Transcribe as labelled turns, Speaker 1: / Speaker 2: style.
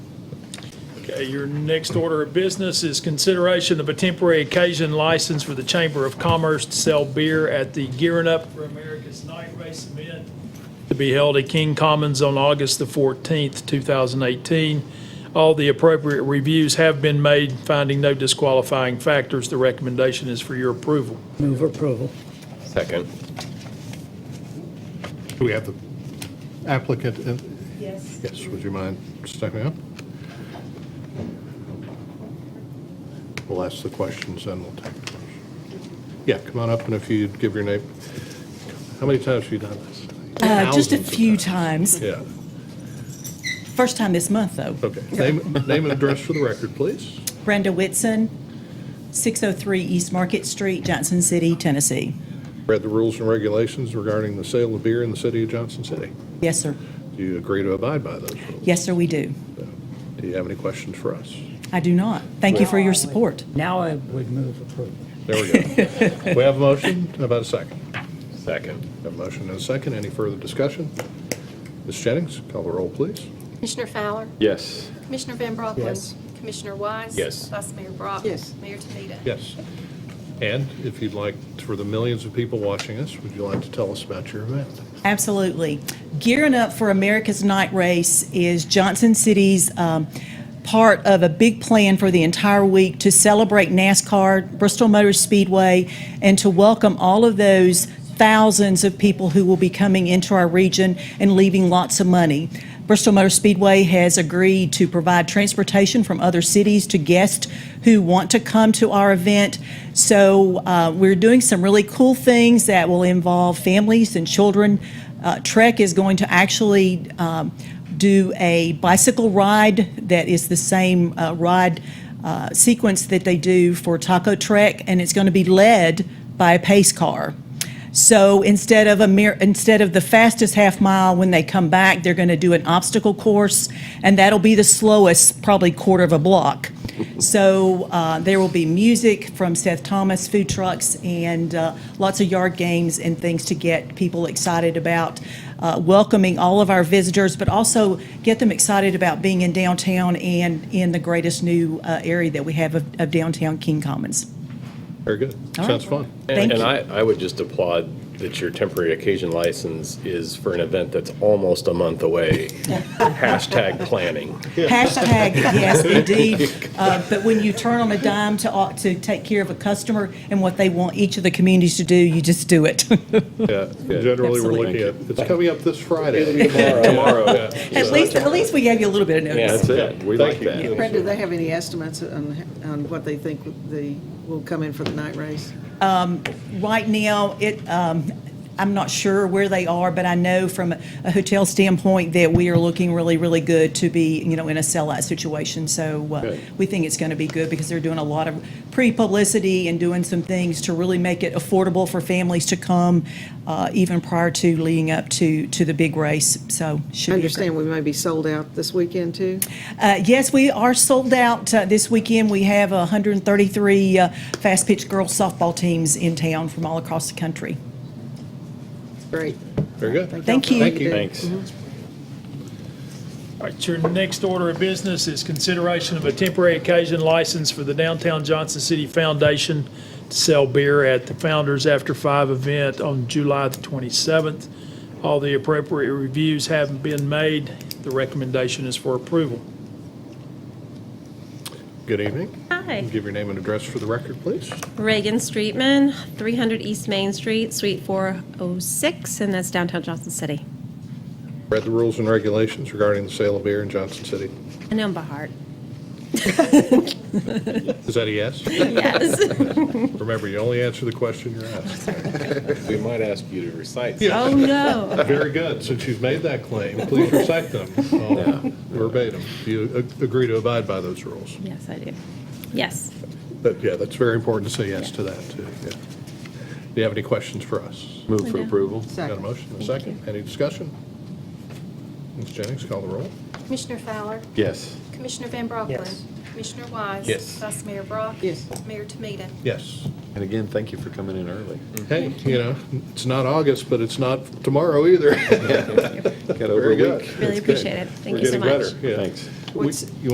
Speaker 1: Okay, your next order of business is consideration of a temporary occasion license for the Chamber of Commerce to sell beer at the Gearing Up for America's Night Race event to be held at King Commons on August the 14th, 2018. All the appropriate reviews have been made, finding no disqualifying factors. The recommendation is for your approval.
Speaker 2: Move approval.
Speaker 3: Second.
Speaker 4: Do we have the applicant? in?
Speaker 5: Yes.
Speaker 4: Yes, would you mind stepping up? We'll ask the questions, then we'll take those. Yeah, come on up, and if you'd give your name. How many times have you done this?
Speaker 5: Uh, Just a
Speaker 4: Thousands of
Speaker 5: few times.
Speaker 4: Yeah,
Speaker 5: First time this month, though.
Speaker 4: okay. Name, name and address for the record, please.
Speaker 5: Brenda Whitson, 603 East Market Street, Johnson City, Tennessee.
Speaker 4: Read the rules and regulations regarding the sale of beer in the city of Johnson City.
Speaker 5: Yes, sir.
Speaker 4: Do you agree to abide by those rules?
Speaker 5: Yes, sir, we do.
Speaker 4: Do you have any questions for us?
Speaker 5: I do not. Thank you for your support.
Speaker 2: Now I would move approval.
Speaker 4: There we go. We have a motion, How about a second.
Speaker 3: Second.
Speaker 4: Have a motion and a second. Any further discussion? Ms. Jennings, call the roll, please.
Speaker 6: Commissioner Fowler?
Speaker 3: Yes.
Speaker 6: Commissioner Van Brocklin?
Speaker 2: Yes.
Speaker 6: Commissioner Wise?
Speaker 3: Yes.
Speaker 6: Vice Mayor Brock?
Speaker 7: Yes.
Speaker 6: Mayor Tumita?
Speaker 4: Yes. And if you'd like, for the millions of people watching us, would you like to tell us about your event?
Speaker 5: Absolutely. Gearing Up for America's Night Race is Johnson City's um, part of a big plan for the entire week to celebrate NASCAR, Bristol Motor Speedway, and to welcome all of those thousands of people who will be coming into our region and leaving lots of money. Bristol Motor Speedway has agreed to provide transportation from other cities to guests who want to come to our event. So uh, we're doing some really cool things that will involve families and children. Uh, Trek is going to actually um, do a bicycle ride that is the same uh, ride uh, sequence that they do for Taco Trek, and it's going to be led by a pace car. So instead of a mere, instead of the fastest half mile, when they come back, they're going to do an obstacle course, and that'll be the slowest, probably quarter of a block. So uh, there will be music from Seth Thomas, food trucks, and uh, lots of yard games and things to get people excited about uh, welcoming all of our visitors, but also get them excited about being in downtown and in the greatest new uh, area that we have of, of downtown King Commons.
Speaker 4: Very good.
Speaker 5: All
Speaker 4: Sounds
Speaker 5: right.
Speaker 4: fun.
Speaker 3: And
Speaker 5: Thank
Speaker 3: and
Speaker 5: you.
Speaker 3: I, I would just applaud that your temporary occasion license is for an event that's almost a month away. Hashtag planning.
Speaker 5: Hashtag, yes, indeed. Uh, But when you turn on a dime to, au- to take care of a customer and what they want each of the communities to do, you just do it.
Speaker 4: Yeah, generally, we're looking
Speaker 5: Absolutely.
Speaker 4: at, it's coming up this Friday.
Speaker 3: Tomorrow.
Speaker 5: At least, at least we gave you a little bit of
Speaker 3: Yeah,
Speaker 5: notice.
Speaker 3: that's it. We like
Speaker 4: Thank you.
Speaker 3: that.
Speaker 7: Brenda, do they have any estimates on, on what they think the, will come in for the night race?
Speaker 5: Right now, it, um, I'm not sure where they are, but I know from a hotel standpoint that we are looking really, really good to be, you know, in a sellout situation. So uh,
Speaker 3: Good.
Speaker 5: we think it's going to be good because they're doing a lot of pre-publicity and doing some things to really make it affordable for families to come, uh, even prior to leading up to, to the big race. So should
Speaker 7: I
Speaker 5: be a
Speaker 7: understand we may be sold out this weekend, too?
Speaker 5: uh, Yes, we are sold out uh, this weekend. We have 133 uh, fast pitch girls softball teams in town from all across the country.
Speaker 7: Great.
Speaker 4: Very good.
Speaker 7: y'all
Speaker 5: Thank
Speaker 7: for all
Speaker 5: you. Mm-hmm.
Speaker 7: do.
Speaker 3: Thanks.
Speaker 1: All right, your next order of business is consideration of a temporary occasion license for the Downtown Johnson City Foundation to sell beer at the Founders After Five event on July the 27th. All the appropriate reviews have been made. The recommendation is for approval.
Speaker 4: Good evening.
Speaker 8: Hi,
Speaker 4: Give your name and address for the record, please.
Speaker 8: Reagan Streetman, 300 East Main Street, Suite 406, and that's downtown Johnson City.
Speaker 4: Read the rules and regulations regarding the sale of beer in Johnson City.
Speaker 8: I know 'em by heart.
Speaker 4: Is that a yes?
Speaker 8: Yes.
Speaker 4: Remember, you only answer the question you're asked.
Speaker 3: We might ask you to recite.
Speaker 8: Oh, no.
Speaker 4: Very good. Since you've made that claim, please recite them all verbatim. Do you ag- agree to abide by those rules?
Speaker 8: Yes, I do. Yes.
Speaker 4: But yeah, that's very important to say yes to that, too. yeah. Do you have any questions for us?
Speaker 3: Move for approval.
Speaker 4: Got a
Speaker 7: Second.
Speaker 4: motion, a second? Any discussion? Ms. Jennings, call the roll.
Speaker 6: Commissioner Fowler?
Speaker 3: Yes.
Speaker 6: Commissioner Van Brocklin?
Speaker 2: Yes.
Speaker 6: Commissioner Wise?
Speaker 3: Yes.
Speaker 6: Vice Mayor Brock?
Speaker 7: Yes.
Speaker 6: Mayor Tumita?
Speaker 4: Yes.
Speaker 9: And again, thank you for coming in early.
Speaker 3: Mm.
Speaker 4: Mm-hmm. Hey, you know, it's not August, but it's not tomorrow either.
Speaker 9: Got over a
Speaker 4: Very
Speaker 9: week.
Speaker 4: good.
Speaker 8: Really appreciate it. Thank you so much.
Speaker 4: We're getting better, yeah.
Speaker 9: Thanks.
Speaker 4: We-
Speaker 7: What's-
Speaker 4: You